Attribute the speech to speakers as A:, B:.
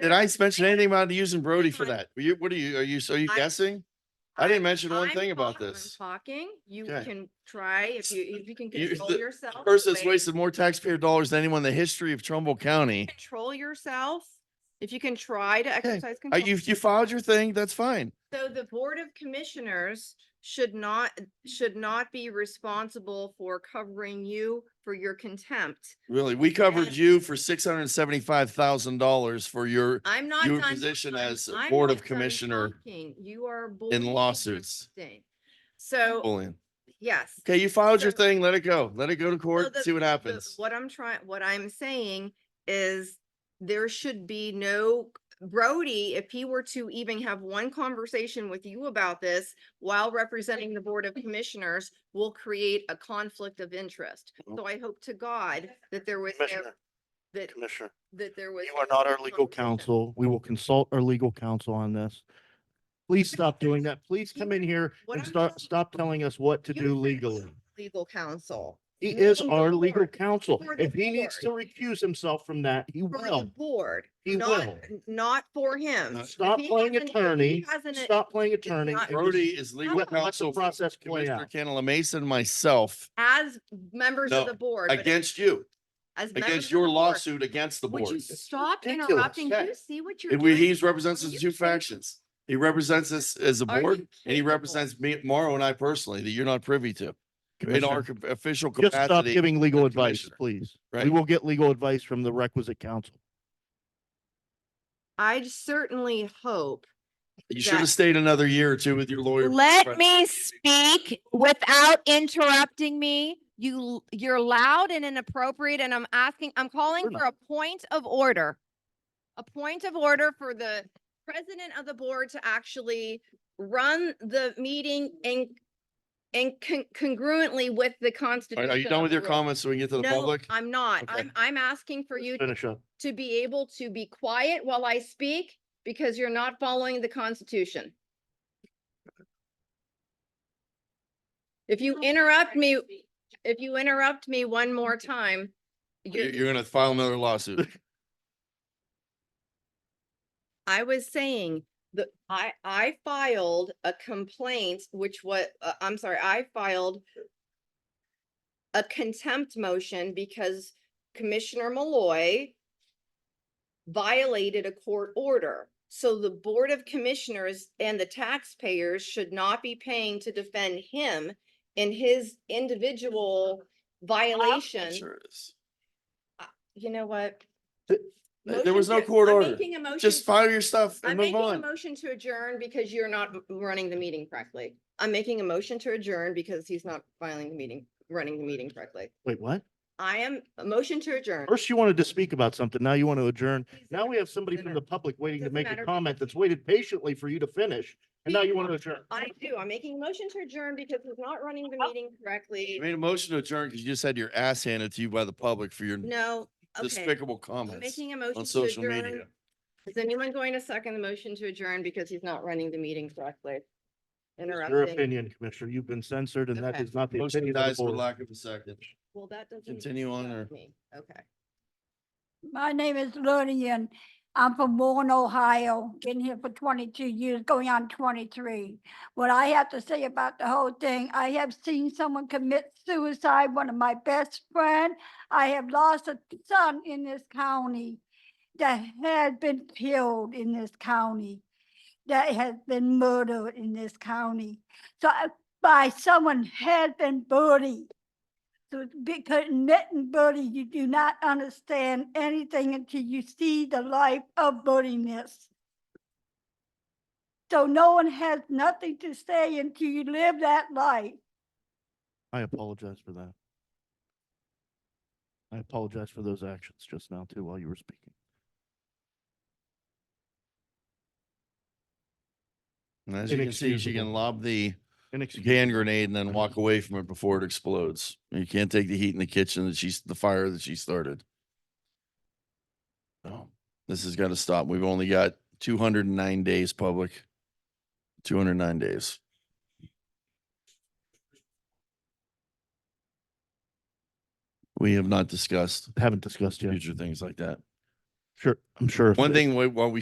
A: Did I mention anything about using Brody for
B: Hang on.
A: that? Were you, what are you, are you, so are you
B: I-
A: guessing? I didn't
B: I'm-
A: mention one
B: I'm
A: thing about
B: talk- I'm
A: this.
B: Talking, you
A: Okay.
B: can try, if you, if you can
A: You-
B: control
A: the
B: yourself. the
A: Person that's
B: way-
A: wasted more taxpayer dollars than anyone in the history of Trumbull County.
B: Control yourself, if you can try to exercise
A: Uh,
B: control.
A: you, you filed your thing, that's fine.
B: So the Board of Commissioners should not, should not be responsible for covering you for your contempt.
A: Really, we covered
B: Yes.
A: you for six hundred and seventy-five thousand dollars for your,
B: I'm not.
A: Your
B: done
A: position
B: talking.
A: as a
B: I'm
A: Board
B: not
A: of
B: done
A: Commissioner
B: talking. You are. bullying me
A: lawsuits.
B: interrupting. So,
A: bullying.
B: yes.
A: Okay, you filed your
B: So-
A: thing, let it go. Let it go to court,
B: the-
A: see what
B: the-
A: happens.
B: What I'm trying, what I'm saying is there should be no, Brody, if he were to even have one conversation with you about this while representing the Board of Commissioners, will create a conflict of interest. So I hope to God that there was, nev-
C: Commissioner,
B: that,
C: Commissioner,
B: that there was.
C: you are not our
B: no
C: legal
B: conversation.
C: counsel. We will consult our legal counsel on this. Please stop doing that. Please come in here
B: What
C: and
B: I'm
C: start,
B: telling
C: stop telling us what to
B: You
C: do
B: are
C: legally.
B: Legal counsel.
C: He
B: you're
C: is
B: the
C: our legal
B: board.
C: counsel.
B: You're the
C: If he needs to
B: board.
C: recuse himself from that, he
B: For the
C: will.
B: board,
C: He
B: not,
C: will. Uh,
B: not for him.
A: No.
B: If
C: Stop
B: he
C: playing
B: has an- if he
C: attorney.
B: has an-
C: Stop playing attorney.
B: not-
C: and just
A: Brody is legal
C: Let let
A: counsel
C: the
A: for
C: process play
A: Commissioner
C: out.
A: Cantala Mason, myself,
B: As members of
A: No,
B: the board. but
A: against you,
B: as members of
A: against
B: the
A: your
B: board.
A: lawsuit against the
B: Would
A: board.
B: you stop
C: ridiculous.
B: interrupting? Do
A: Okay.
B: you see what you're
A: It-
B: doing?
A: we- He's represents
B: Are
A: us
B: you
A: two
B: kidding?
A: factions. He represents us as a
B: Are you
A: board and he
B: capable?
A: represents me, Morrow and I personally, that you're not privy to. In our
C: Commissioner,
A: co- official
C: Just stop
A: capacity.
C: giving legal
A: as
C: advice,
A: commissioner,
C: please. We
A: right?
C: will get legal advice from the requisite counsel.
B: I certainly hope.
A: You should have
B: that-
A: stayed another year or two with your lawyer.
D: Let
A: Right.
D: me speak without interrupting me. You, l- you're loud and inappropriate, and I'm asking, I'm calling
C: We're
D: for a point of order. A point of order for the president of the board to actually run the meeting and and con- congruently with the
A: All
D: constitution.
A: right, Are you
D: of
A: done with
D: the
A: your
D: world.
A: comments so we can get to the
D: No,
A: public?
D: I'm not.
A: Okay.
D: I'm, I'm asking for you
C: Finish up.
D: to be able to be quiet while I speak because you're not following the Constitution. If you interrupt me, if you interrupt me one more time,
A: You-
D: you're-
A: You're gonna file another lawsuit.
B: I was saying that I, I filed a complaint, which what, I'm sorry, I filed a contempt motion because Commissioner Malloy violated a court order. So the Board of Commissioners and the taxpayers should not be paying to defend him in his individual violation.
A: Sure is.
B: You know what?
C: Th-
A: th- there was no
B: Motion to-
A: court
B: I'm
A: order.
B: making a motion
A: Just
B: to-
A: file your stuff
B: I'm
A: and move
B: making a
A: on.
B: motion to adjourn because you're not m- running the meeting correctly. I'm making a motion to adjourn because he's not filing the meeting, running the meeting correctly.
C: Wait, what?
B: I am, a motion to adjourn.
C: First you wanted to speak about something. Now you want to adjourn.
B: Please
C: Now we have somebody
B: dinner.
C: from the public waiting to
B: Doesn't
C: make
B: matter.
C: a comment that's waited patiently for you to finish. And now you want to adjourn.
B: I do, I'm making a motion to adjourn because he's not running the meeting
A: You
B: correctly.
A: made a motion to adjourn because you just had your ass handed to you by the public for your
B: No, okay.
A: despicable
B: I'm
A: comments
B: making a
A: on
B: motion to
A: social media.
B: adjourn. Is anyone going to second the motion to adjourn because he's not running the meeting correctly?
C: Your
B: Interrupting.
C: opinion, Commissioner, you've been censored and that
B: Okay.
C: is not the
A: Motion
C: opinion of
A: dies
C: the
A: for
C: board.
A: lack of a second.
B: Well, that doesn't.
A: Continue on or?
B: stop me. Okay.
E: My name is Lillian. I'm from Warren, Ohio, been here for twenty-two years, going on twenty-three. What I have to say about the whole thing, I have seen someone commit suicide, one of my best friend. I have lost a son in this county that has been killed in this county, that has been murdered in this county. So I- by someone has been bullied. So it's because and Buddy, you do not understand anything until you see the life of buddiness. So no one has nothing to say until you live that life.
C: I apologize for that. I apologize for those actions just now too while you were speaking.
A: And As you can see, she
C: Inexcusable.
A: can lob the
C: Inexcusable.
A: hand grenade and then walk away from it before it explodes. You can't take the heat in the kitchen that she's, the fire that she started. So this has got to stop. We've only got two hundred and nine days public. Two hundred and nine days. We have not discussed
C: Haven't discussed yet.
A: future things like that.
F: Sure, I'm sure. if
C: One
F: they-
C: thing, wa- while we